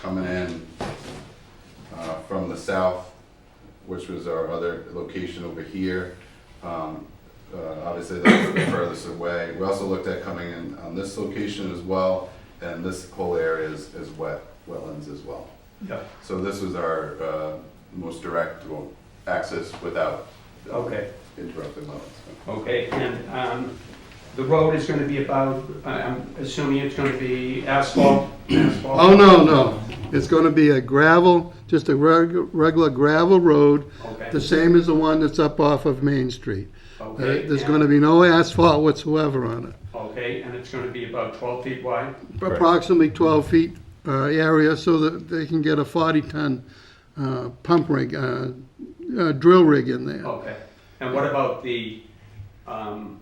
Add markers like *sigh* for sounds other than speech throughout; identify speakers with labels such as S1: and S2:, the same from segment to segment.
S1: coming in uh, from the south, which was our other location over here. Um, uh, Obviously, that's the furthest away. We also looked at coming in on this location as well, and this whole area is, is wet, wetlands as well.
S2: Yeah,
S1: So this was our uh, most direct well, access without uh,
S2: okay,
S1: interrupting wetlands.
S2: okay, and, um, the road is gonna be about, I- I'm assuming it's gonna be asphalt, asphalt?
S3: Oh, no, no. It's going to be a gravel, just a reg- regular gravel road, the
S2: Okay,
S3: same as the one that's up off of Main Street. Uh,
S2: okay.
S3: There's
S2: and-
S3: going to be no asphalt whatsoever on it.
S2: Okay, and it's gonna be about twelve feet wide?
S1: Correct.
S3: Approximately 12 feet uh, area so that they can get a 40-ton pump rig, uh, uh, drill rig in there.
S2: Okay, and what about the, um,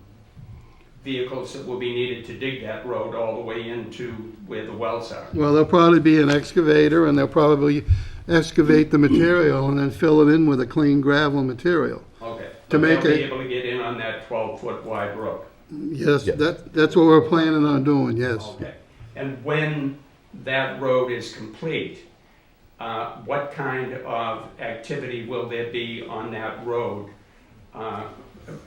S2: vehicles that will be needed to dig that road all the way into where the wells are?
S3: Well, there'll probably be an excavator and they'll probably excavate the material and then fill it in with a clean gravel material.
S2: Okay.
S3: To make
S2: They'll be
S3: it-
S2: able to get in on that twelve-foot wide road?
S3: Yes,
S1: Yes.
S3: that, that's what we're planning on doing, yes.
S2: Okay, and when that road is complete, uh, what kind of activity will there be on that road? Uh,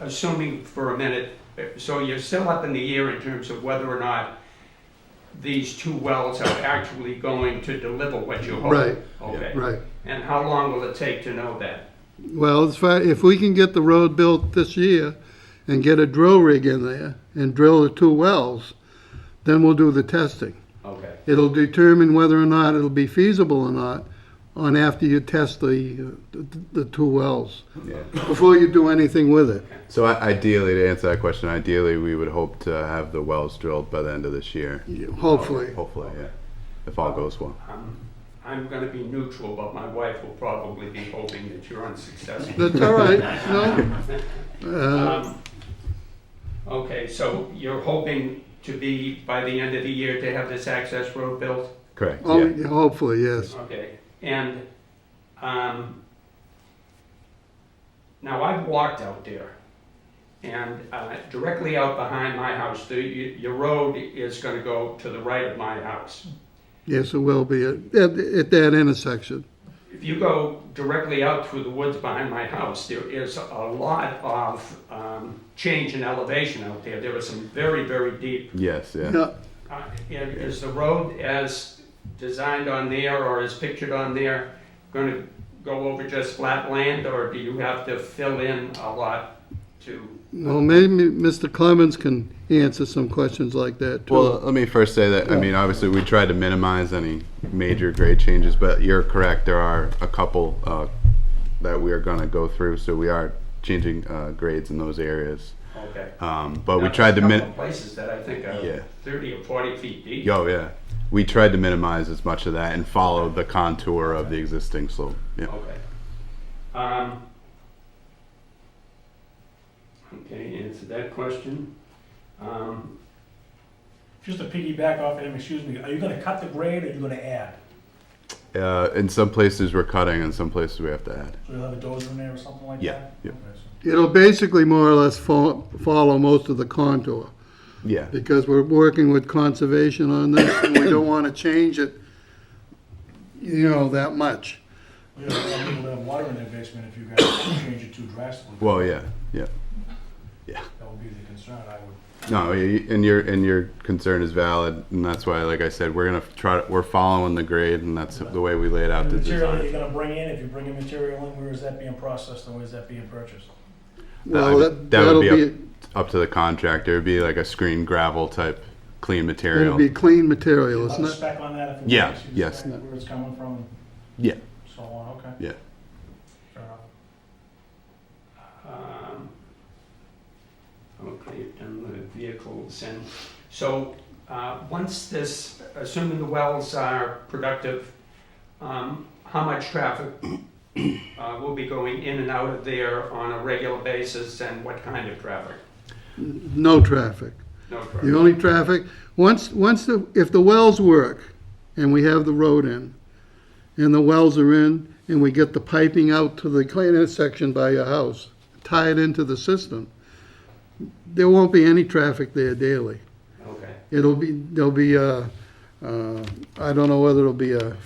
S2: Assuming for a minute, so you're still up in the air in terms of whether or not these two wells are actually going to deliver what you hope?
S3: Right.
S2: Okay,
S3: Right.
S2: and how long will it take to know that?
S3: Well, if, I, if we can get the road built this year and get a drill rig in there and drill the two wells, then we'll do the testing.
S2: Okay,
S3: It'll determine whether or not it'll be feasible or not on after you test the, uh, the, the two wells,
S1: Yeah.
S3: before you do anything with it.
S1: So i- ideally, to answer that question, ideally, we would hope to have the wells drilled by the end of this year.
S3: Hopefully.
S1: Hopefully, yeah, if all goes well.
S2: um, I'm gonna be neutral, but my wife will probably be hoping that you're unsuccessful.
S3: That's all right, no? Uh,
S2: Um, Okay, so you're hoping to be, by the end of the year, to have this access road built?
S1: Correct,
S3: oh,
S1: yeah.
S3: yeah, hopefully, yes.
S2: Okay, and, um, now I've walked out there, and uh, directly out behind my house, the, y- your road is gonna go to the right of my house.
S3: Yes, it will be at, at at that intersection.
S2: If you go directly out through the woods behind my house, there is a lot of um, change in elevation out there. There are some very, very deep
S1: Yes, yeah.
S3: Yeah,
S2: Uh, and Is the road as designed on there or as pictured on there going to go over just flat land? Or do you have to fill in a lot to,
S3: well, maybe Mr. Clemens can answer some questions like that, too.
S1: Well, let me first say that, I mean, obviously, we tried to minimize any major grade changes, but you're correct, there are a couple uh, that we are going to go through, so we are changing uh, grades in those areas.
S2: okay.
S1: Um, But we
S2: Now,
S1: tried to
S2: there's a
S1: min,
S2: couple Places that I think
S1: Yeah.
S2: are 30 or 40 feet deep.
S1: yo, yeah, we tried to minimize as much of that and follow the contour of the existing slope, yeah.
S2: Okay. Um, Okay, answer that question. Um,
S4: Just to piggyback off of him, excuse me, are you gonna cut the grade or are you gonna add?
S1: Uh, In some places, we're cutting, in some places, we have to add.
S4: So you'll have a dozer in there or something like that?
S1: Yeah, yeah.
S4: Okay, so-
S3: It'll basically more or less fo- follow most of the contour,
S1: Yeah,
S3: because we're working with conservation on this, and we don't want to change it, you know, that much.
S4: We don't have people that have water in their basement if you guys *coughs* change it too drastically.
S1: well, yeah, yeah.
S4: That would be the concern, I would.
S1: No, y- and your and your concern is valid, and that's why, like I said, we're gonna try. We're following the grade, and that's the way we laid out
S4: And
S1: the
S4: The material that
S1: design.
S4: you're gonna bring in, if you bring in material in, where is that being processed and where is that being purchased?
S3: Well,
S1: That-
S3: that,
S1: that
S3: that'll
S1: would be
S3: be,
S1: Up to the contractor, it'd be like a screen gravel type, clean
S3: it'll
S1: material.
S3: be clean material, it's
S4: Have a
S3: not,
S4: spec on that if you
S1: Yeah,
S4: want to see the
S1: yes.
S4: spec, where it's coming from,
S1: yeah,
S4: so on, okay?
S1: Yeah.
S4: Fair enough.
S2: Um, Okay, and the vehicles and, so, uh, once this, assuming the wells are productive, um, how much traffic uh, will be going in and out of there on a regular basis and what kind of traffic?
S3: no traffic.
S2: No
S3: The
S2: traffic?
S3: only traffic, once, once the, if the wells work, and we have the road in, and the wells are in, and we get the piping out to the clean intersection by your house, tie it into the system, there won't be any traffic there daily.
S2: Okay.
S3: It'll be, there'll be, uh, uh, I don't know whether it'll be a